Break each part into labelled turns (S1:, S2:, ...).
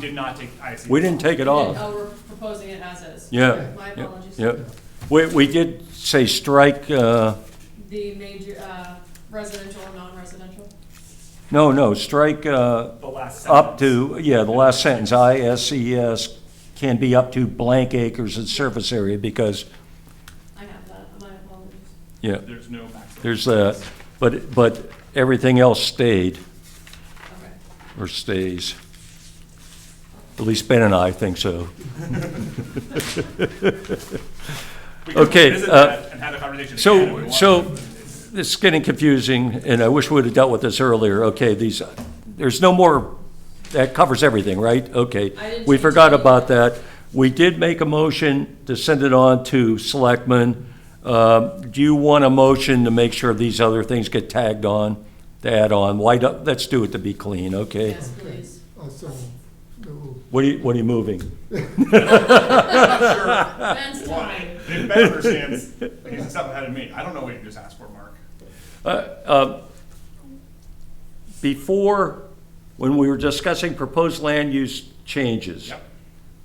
S1: did not take ISD.
S2: We didn't take it off.
S3: Oh, we're proposing it as is.
S2: Yeah.
S3: My
S2: yeah,
S3: apologies.
S2: Yeah. We, we did say strike, uh,
S3: The major, uh, residential and non-residential.
S2: no, no, strike, uh,
S1: The last sentence.
S2: up to, yeah, the last sentence, ISCS can be up to blank acres in surface area because,
S3: I have that, my apologies.
S2: yeah,
S1: There's no maximum.
S2: there's that. But, but everything else stayed
S3: Okay.
S2: or stays. At least Ben and I think so.
S1: We can
S2: okay,
S1: revisit
S2: uh,
S1: that and have a conversation
S2: so-
S1: again if we want
S2: so-
S1: to, but it's-
S2: It's getting confusing, and I wish we would have dealt with this earlier. Okay, these, there's no more, that covers everything, right? Okay.
S3: I didn't
S2: We
S3: change
S2: forgot
S3: anything.
S2: about that. We did make a motion to send it on to selectmen. Um, Do you want a motion to make sure these other things get tagged on, to add on? Why, don't- let's do it to be clean, okay?
S3: Yes, please.
S4: Also, the rule.
S2: What are you, what are you moving?
S3: Ben's
S1: Why?
S3: time.
S1: If Ben understands, he's a step ahead of me. I don't know what you just asked for, Mark.
S2: Before, when we were discussing proposed land use changes.
S1: Yep.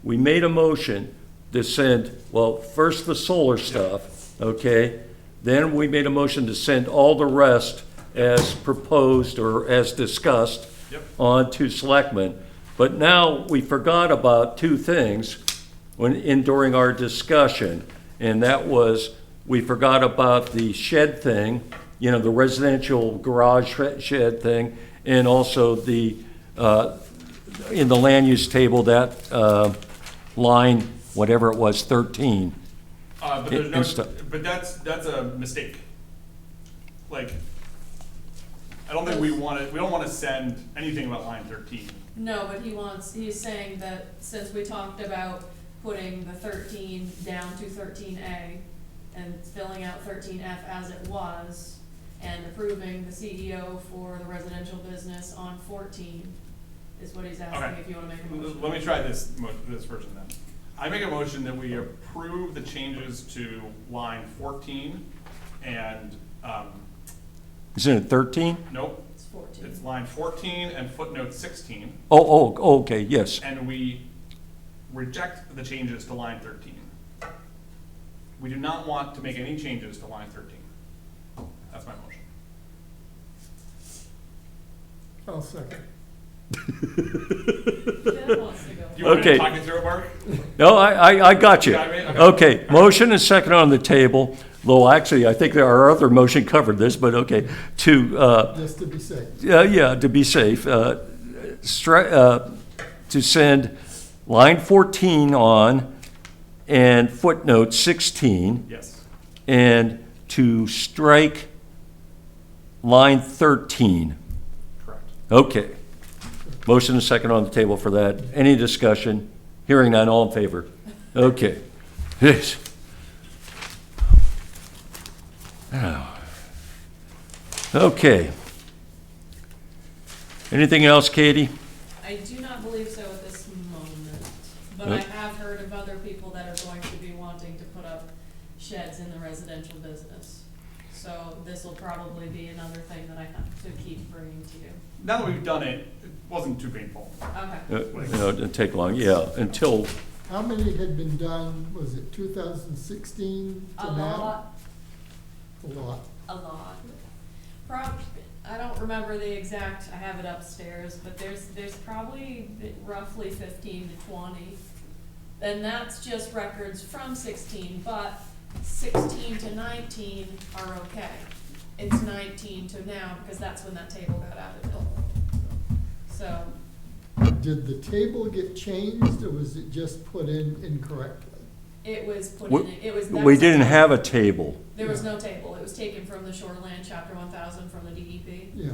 S2: we made a motion to send, well, first the solar stuff, okay? Then we made a motion to send all the rest as proposed or as discussed
S1: Yep.
S2: on to selectmen. But now we forgot about two things when, in, during our discussion. And that was, we forgot about the shed thing, you know, the residential garage shed- shed thing, and also the, uh, in the land use table, that uh, line, whatever it was, 13.
S1: Uh, but
S2: It-
S1: there's no,
S2: it's the-
S1: but that's, that's a mistake. Like, I don't think we wanna, we don't wanna send anything about line thirteen.
S3: No, but he wants, he's saying that since we talked about putting the thirteen down to thirteen A and filling out thirteen F as it was, and approving the CEO for the residential business on fourteen, is what he's
S1: Okay.
S3: asking if you wanna make a motion.
S1: Let me try this, mo- this version then. I make a motion that we approve the changes to line fourteen and, um,
S2: Isn't it 13?
S1: nope,
S3: It's fourteen.
S1: it's line fourteen and footnote sixteen.
S2: Oh, oh, okay, yes.
S1: and we reject the changes to line thirteen. We do not want to make any changes to line thirteen. That's my motion.
S4: I'll second.
S3: Ben wants to go.
S1: Do you want me to
S2: Okay.
S1: talk you through it, Mark?
S2: No, I, I, I got you.
S1: You got me? Okay.
S2: Okay, motion and second on the table, though actually, I think there our other motion covered this, but okay, to, uh,
S4: Just to be safe.
S2: yeah, yeah, to be safe, uh, stri- uh, to send line 14 on and footnote 16.
S1: Yes.
S2: and to strike line 13.
S1: Correct.
S2: Okay. Motion and second on the table for that. Any discussion? Hearing none, all in favor? Okay. Yes. Okay. Anything else, Katie?
S3: I do not believe so at this moment, but
S2: Uh.
S3: I have heard of other people that are going to be wanting to put up sheds in the residential business. So this will probably be another thing that I have to keep bringing to you.
S1: Now that we've done it, it wasn't too painful.
S3: Okay,
S2: Uh, No, it didn't take long, yeah, until,
S4: How many had been done, was it two thousand sixteen
S3: a
S4: to now?
S3: lot,
S4: A lot.
S3: a lot. Prob, I don't remember the exact, I have it upstairs, but there's, there's probably roughly fifteen to twenty. And that's just records from sixteen, but sixteen to nineteen are okay. It's nineteen to now, because that's when that table got added in. So,
S4: Did the table get changed, or was it just put in incorrectly?
S3: it was put
S2: We-
S3: in, it was. that
S2: we
S3: was-
S2: didn't have a table.
S3: There was no table, it was taken from the shoreline chapter one thousand from the E DEP.
S4: Yeah,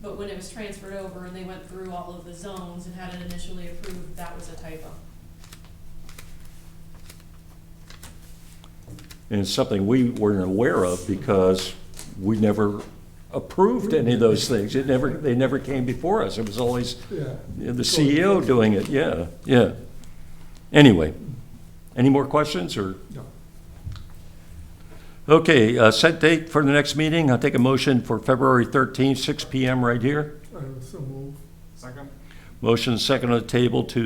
S3: But when it was transferred over and they went through all of the zones and had it initially approved, that was a typo.
S2: And it's something we weren't aware of because we never approved any of those things. It never, they never came before us. It was always
S4: yeah.
S2: the E CEO doing it, yeah, yeah. Anyway, any more questions or?
S4: No.
S2: Okay, uh, set date for the next meeting. I'll take a motion for February 13th, 6 PM right here.
S4: I also move.
S1: Second?
S2: Motion second on the table to